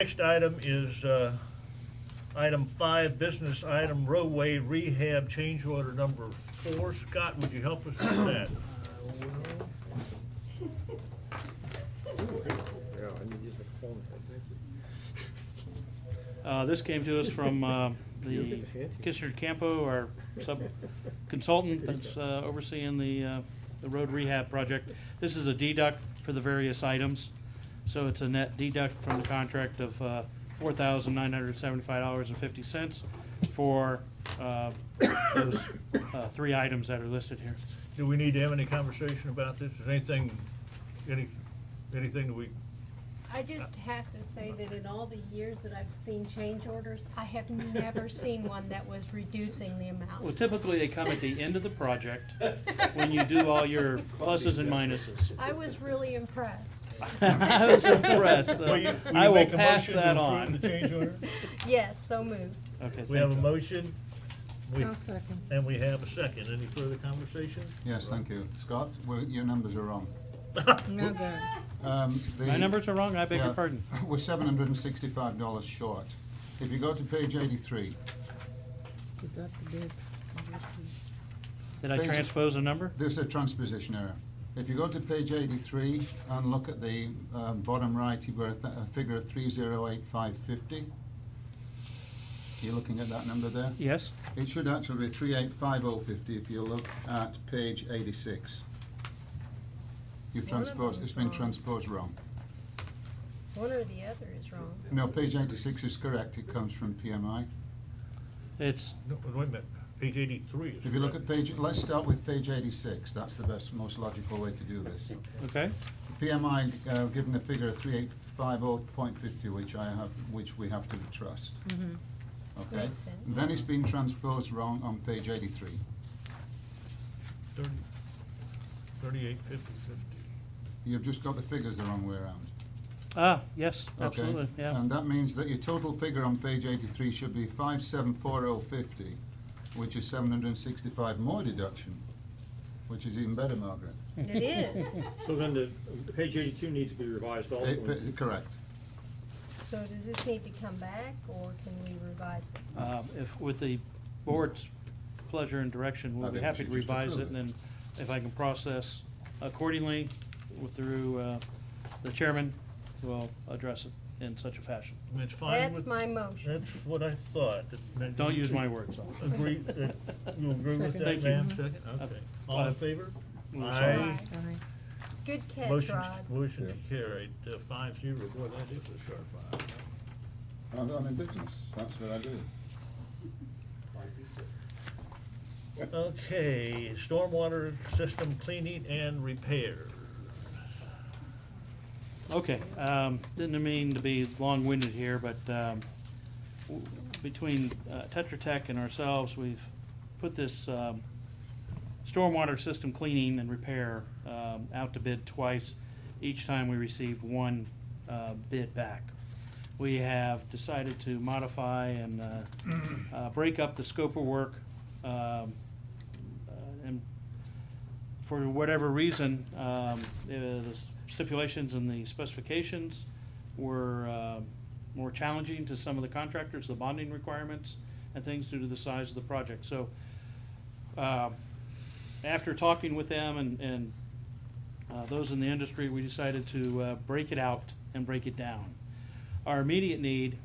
Next item is uh, item five, business item roadway rehab change order number four. Scott, would you help us with that? Uh, This came to us from uh, the Kisser Campo, our sub consultant that's uh, overseeing the, uh, the road rehab project. This is a deduct for the various items, so it's a net deduct from the contract of uh, $4,975.50 for uh, those uh, three items that are listed here. Do we need to have any conversation about this? Is anything, any, anything that we, I just have to say that in all the years that I've seen change orders, I have never seen one that was reducing the Well, amount. typically, they come at the end of the project, when you do all your pluses and minuses. I was really impressed. I was impressed. Will you- will you so uh, I will make a pass motion to that approve on. the change order? Yes, so moved. Okay, we have a thank you. motion? We- I'll second. And we have a second. Any further conversation? Yes, thank you. Scott, well, your numbers are wrong. No good. Um, the- My numbers are wrong, I beg your yeah, pardon. We're seven hundred and sixty-five dollars short. If you go to page eighty-three, Deduct the bid. Did I Thank you. transpose a number? there's a transposition error. If you go to page eighty-three and look at the um, bottom right, you've got a, th- a figure of three zero eight five fifty. You're looking at that number there? Yes. It should actually be three eight five oh fifty if you look at page eighty-six. You've One of transposed, it's been them's wrong. transposed wrong. One or the other is wrong. No, page eighty-six is correct, it comes from PMI. It's, No, wait a minute. Page eighty-three is. If you look at page, let's start with page eighty-six, that's the best, most logical way to do this. okay, PMI, uh, given the figure of three eight five oh point fifty, which I have, which we have to trust. Okay, Mm-hmm. Makes sense. then it's been transposed wrong on page eighty-three. Thirty-eight, fifty, fifty. You've just got the figures the wrong way around. ah, yes, Okay. Um, absolutely, yeah. And that means that your total figure on page eighty-three should be five seven four oh fifty, which is seven hundred and sixty-five more deduction, which is even better, Margaret. It is. So then the, the page eighty-two needs to be revised also. Eh, pe- Correct. So does this need to come back or can we revise it? Um, If, with the board's pleasure and direction, I we'll be think we happy should to just revise it, approve and it. then if I can process accordingly with- through uh, the chairman, we'll address it in such a fashion. It's fine with. That's my motion. That's what I thought. that- that Don't you- use my words, though. Agree, that you agree with Second. that, Thank you. ma'am? Second, okay. All in favor? Mm, Aye. Aye. Aye. Good catch, Motion, Rod. motion carried, uh, five zero, boy, that is a sharp eye. I'm, I'm in business, that's what I do. Okay, stormwater system cleaning and repair. Okay, um, didn't mean to be long-winded here, but, um, w- between uh, Tetra Tech and ourselves, we've put this, um, stormwater system cleaning and repair, um, out to bid twice. Each time we received one, uh, bid back. We have decided to modify and, uh, uh, break up the scope of work, um, uh, and for whatever reason, um, the the stipulations and the specifications were um, more challenging to some of the contractors, the bonding requirements and things due to the size of the project. So, um, after talking with them and, and uh, those in the industry, we decided to uh, break it out and break it down. Our immediate need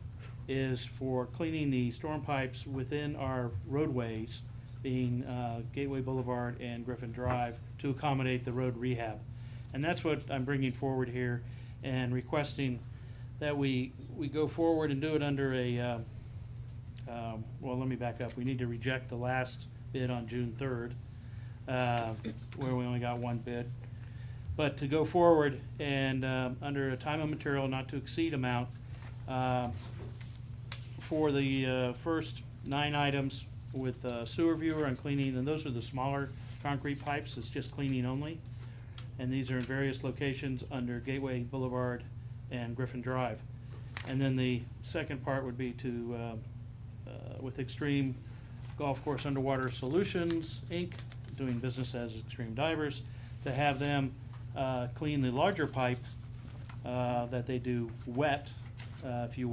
is for cleaning the storm pipes within our roadways, being uh, Gateway Boulevard and Griffin Drive, to accommodate the road rehab. And that's what I'm bringing forward here and requesting that we, we go forward and do it under a, uh, um, well, let me back up. We need to reject the last bid on June third, uh, where we only got one bid. But to go forward and, um, under a time and material not to exceed amount, um, for the, uh, first nine items with uh, sewer viewer and cleaning, and those are the smaller concrete pipes, it's just cleaning only. And these are in various locations under Gateway Boulevard and Griffin Drive. And then the second part would be to, uh, uh, with Extreme Golf Course Underwater Solutions, Inc., doing business as Extreme Divers, to have them uh, clean the larger pipe uh, that they do wet uh, if you